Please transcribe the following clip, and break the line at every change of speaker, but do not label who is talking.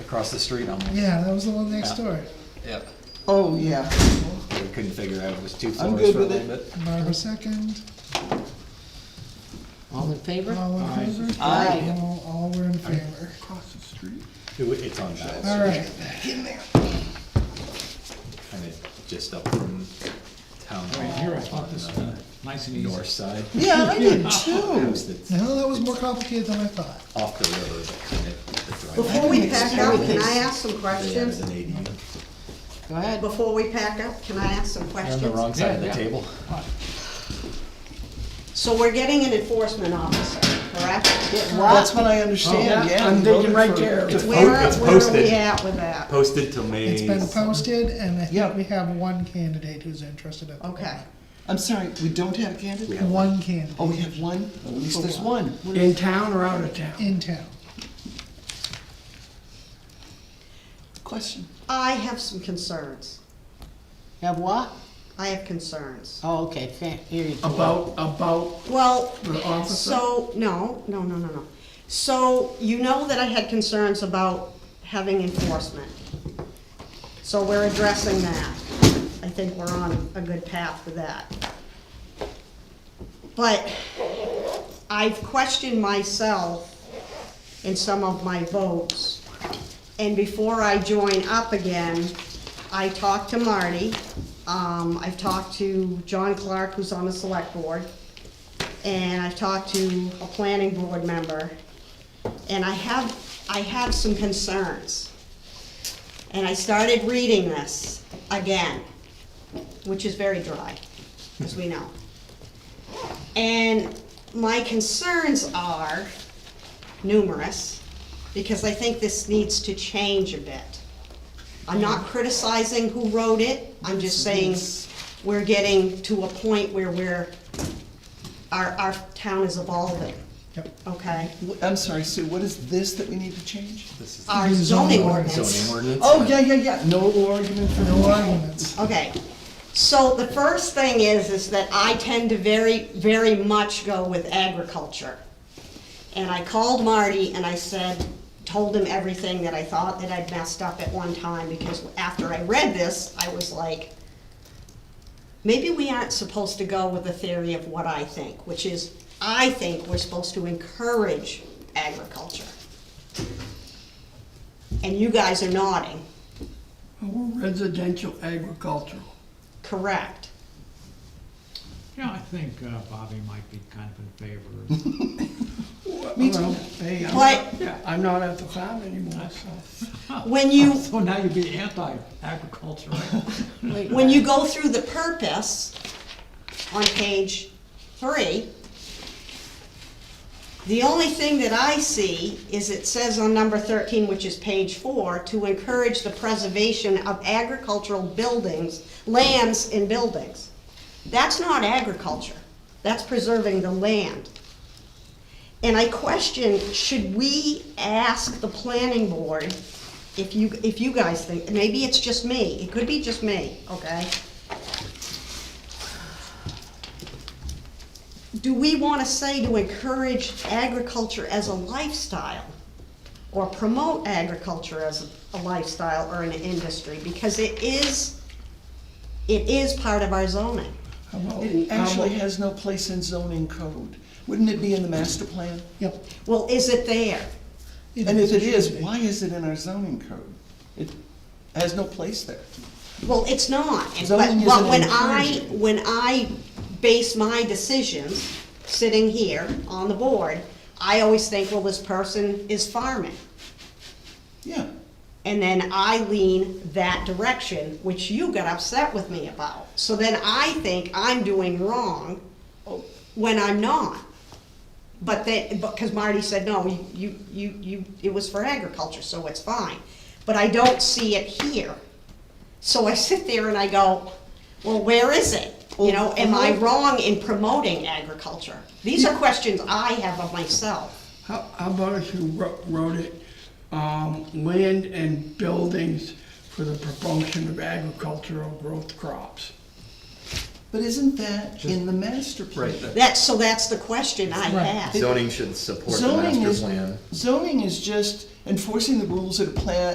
across the street almost.
Yeah, that was the one next
Yeah.
door.
Yep.
Oh, yeah.
We couldn't figure out, it was two
I'm
floors
good
for a
with it.
little bit.
Barbara second,
All in favor?
all in favor?
Aye.
All, all were in favor.
Across the street?
It wa- It's on
All
balance,
right,
kind of just up from town hall
here, I
on
thought this
the
was nice and easy.
north side.
Yeah, I did
House
too.
that's
now that was more complicated than I thought.
off the river, but kind of the driveway.
Before we pack up, can I ask some
They have as
questions?
an ADU.
Go ahead.
Before we pack up, can I ask some
They're on the
questions?
wrong side of the
Yeah, yeah.
table.
So we're getting an enforcement officer, correct?
That's what I understand, yeah.
I'm
he
digging
voted
right
for-
there.
It's po-
Where,
it's
where are
posted.
we at with that?
Posted till May.
It's been posted, and I
Yeah.
think we have one candidate who's interested at the
Okay,
moment.
I'm sorry, we don't have a
We
candidate?
have-
One candidate
Oh, we have one? At least there's one.
In town or out of town?
in town.
Question.
I have some concerns.
Have what?
I have concerns.
Oh, okay, fa- here you go.
About, about,
Well,
The officer?
so, no, no, no, no, no. So you know that I had concerns about having enforcement. So we're addressing that. I think we're on a good path with that. But I've questioned myself in some of my votes. And before I join up again, I talked to Marty, um, I've talked to John Clark, who's on the select board, and I've talked to a planning board member. And I have, I have some concerns. And I started reading this again, which is very dry, as we know. And my concerns are numerous, because I think this needs to change a bit. I'm not criticizing who wrote it, I'm just saying we're getting to a point where we're, our, our town is evolving,
Yep.
okay?
Wh- I'm sorry, Sue, what is this that we need to change?
This is
Our
Zoning
zoning
ordinance.
zoning
ordinance.
ordinance.
Oh, yeah, yeah, yeah, no argument for
No
no
arguments.
Okay, so the first thing is, is that I tend to very, very much go with agriculture. And I called Marty and I said, told him everything that I thought that I'd messed up at one time, because after I read this, I was like, maybe we aren't supposed to go with the theory of what I think, which is, I think we're supposed to encourage agriculture. And you guys are nodding,
residential agricultural.
correct?
yeah, I think uh, Bobby might be kind of in favor.
Me
Well,
too.
hey, I'm
But-
not- yeah, I'm not at the farm anymore, so.
When you,
So now you'd be anti-agriculture, right?
when you go through the purpose on page three, the only thing that I see is it says on number thirteen, which is page four, to encourage the preservation of agricultural buildings, lands and buildings. That's not agriculture, that's preserving the land. And I question, should we ask the planning board if you, if you guys think, maybe it's just me, it could be just me, okay? Do we wanna say to encourage agriculture as a lifestyle? Or promote agriculture as a lifestyle or an industry, because it is, it is part of our zoning.
How about-
Oh,
It
how
actually
about-
has no place in zoning code. Wouldn't it be in the master plan?
Yep.
Well, is it there?
And if it is,
should be.
why is it in our zoning code? It has no place there.
Well, it's not, and- but,
Zoning
but
isn't
when I,
encouraging.
when I base my decisions, sitting here on the board, I always think, well, this person is farming.
Yeah,
And then I lean that direction, which you got upset with me about. So then I think I'm doing wrong when I'm not. But then, because Marty said, no, you- you, you, you, it was for agriculture, so it's fine. But I don't see it here. So I sit there and I go, well, where is it? You know, am I wrong in promoting agriculture? These are questions I have of myself.
How, how about if you wro- wrote it, um, land and buildings for the promotion of agricultural growth crops?
but isn't that in the master plan?
Right,
That, so that's the question I have.
zoning should support the
Zoning
master
is,
plan.
zoning is just enforcing the rules of the plan